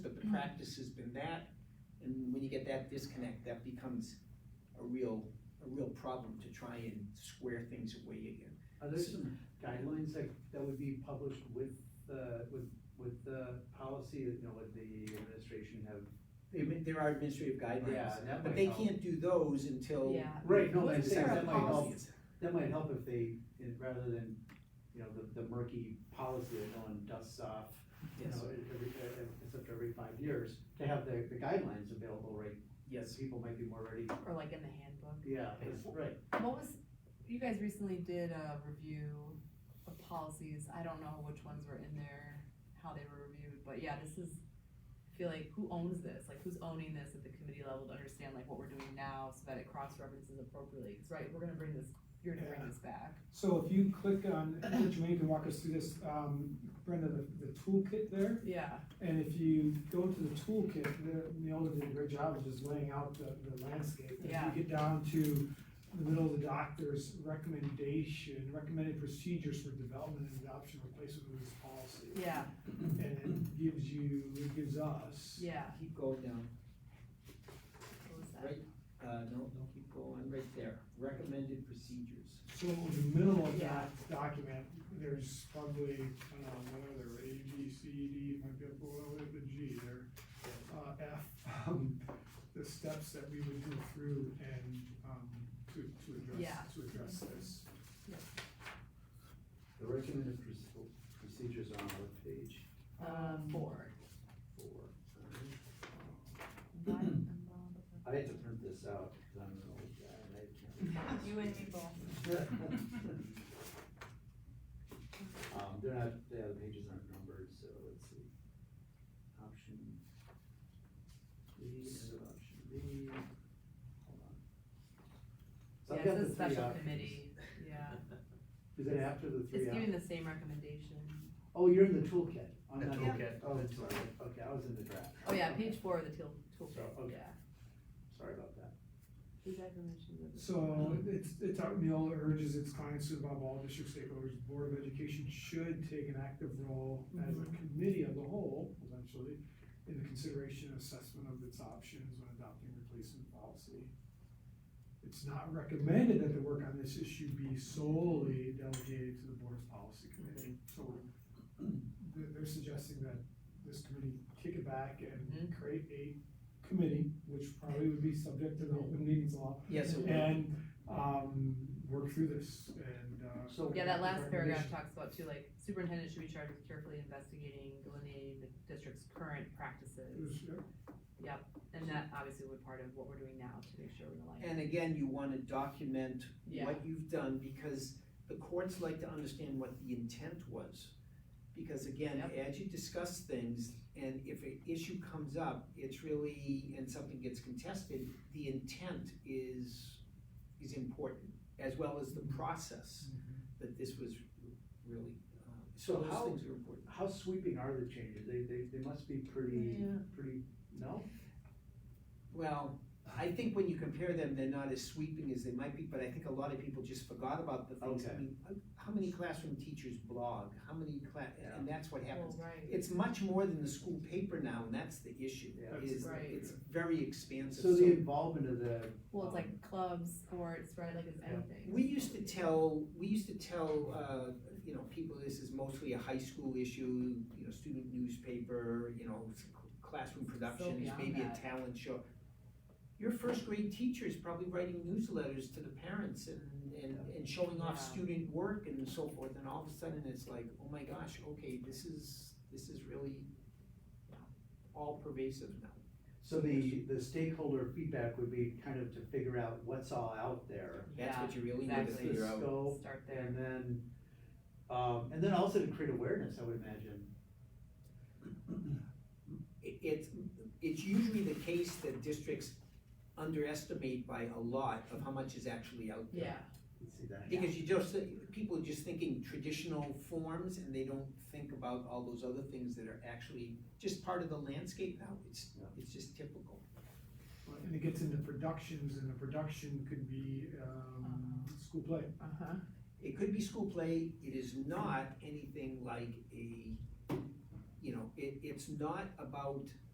practice has been that, and when you get that disconnect, that becomes a real, a real problem to try and square things away again. Are there some guidelines that, that would be published with the, with, with the policy that, you know, would the administration have? There may- There are administrative guidelines, Yeah, that but might they help. can't do those until. Yeah. Right, no, Well, I'm it's saying not that a might help, policy. that might help if they, eh, rather than, you know, the, the murky policy that no one dusts off, you Yes, know, eh, every, eh, eh, except every five years, to have the, the guidelines available, right? yes. People might be more ready, Or like in the handbook. yeah, that's right. What was, you guys recently did a review of policies, I don't know which ones were in there, how they were reviewed, but yeah, this is, I feel like, who owns this, like, who's owning this at the committee level to understand like what we're doing now, so that it cross-references appropriately, 'Cause, right, we're gonna bring this, you're gonna bring this back. So if you click on, which Wayne can walk us through this, um, Brenda, the, the toolkit there, Yeah, and if you go to the toolkit, the, Neola did a great job of just laying out the, the landscape. And Yeah. If you get down to the middle of the doctor's recommendation, recommended procedures for development and adoption replacement of this policy. yeah, And it gives you, it gives us. yeah, Keep going down, what was that? right, uh, no, no, keep going, right there, recommended procedures. So in the middle of Yeah. that document, there's probably, I don't know, what other, A, B, C, D, might be up below it, but G there. Uh, F, um, the steps that we would go through and, um, to, to address, Yeah. to address this. The recommended proce- procedures are on what page? Uh, four. Four. uh, What in the- I had to print this out, 'cause I'm an old guy, and I can't. You and me both. Um, they're not, yeah, the pages aren't numbered, so let's see. Option B, and then option B, hold on. So I've Yeah, it's got the a three special options. committee, yeah, Is it after the it's three? op- giving the same recommendation, Oh, you're in the toolkit. I'm The not- toolkit. Oh, I'm sorry, okay, I was in the draft. oh yeah, page four of the tool, toolkit, okay. yeah. Sorry about that. These recommendations of the- So it's, it's out, Neola urges its clients to involve all district stakeholders, Board of Education should take an active role as a committee of the whole, potentially, in the consideration and assessment of its options when adopting replacement policy. It's not recommended that the work on this issue be solely delegated to the Board's Policy Committee, so they're, they're suggesting that this committee kick it back and Mhm. create a committee, which probably would be subject to the open meetings law, Yes, it would. and, um, work through this and, uh. So- Yeah, that last paragraph recommendation. talks about too, like superintendent should be charged with carefully investigating, delineating the district's current practices. Is- yeah. And that obviously would part of what we're doing now to make sure we're like, And again, you wanna document yeah, what you've done, because the courts like to understand what the intent was. Because again, as you discuss things, and if an issue comes up, it's really, and something gets contested, the intent is, is important, as well as the process that this was really, uh, so So those how- things are important. How sweeping are the changes? They, they, they must be pretty, pretty, no? Well, I think when you compare them, they're not as sweeping as they might be, but I think a lot of people just forgot about the things. I Okay. mean, how many classroom teachers blog? How many class, and that's what well, happens. right, It's much more than the school paper now, and that's the issue, Yeah. is Right. it's very expansive. So the involvement of the. well, it's um, like clubs, sports, right, like it's Yeah. anything. We used to tell, we used to tell, uh, you know, people this is mostly a high school issue, you know, student newspaper, you know, s- classroom productions, beyond maybe a that. talent show. Your first grade teacher is probably writing newsletters to the parents and, and, and showing off Yeah. student work and so forth, and all of a sudden it's like, oh my gosh, okay, this is, this is really all pervasive now. So the, the stakeholder feedback would be kind of to figure out what's all out there. That's Yeah, what you really need to exactly. figure out. Scope, Start there, and then, um, and then also to create awareness, I would imagine. it- it's, it's usually the case that districts underestimate by a lot of how much is actually out there. yeah, Let's see that. Because you just, people are just thinking traditional forms and they don't think about all those other things that are actually just part of the landscape now, it's, Yeah. it's just typical. And it gets into productions, and the production could be, um, school play. uh-huh, It could be school play, it is not anything like a, you know, it, it's not about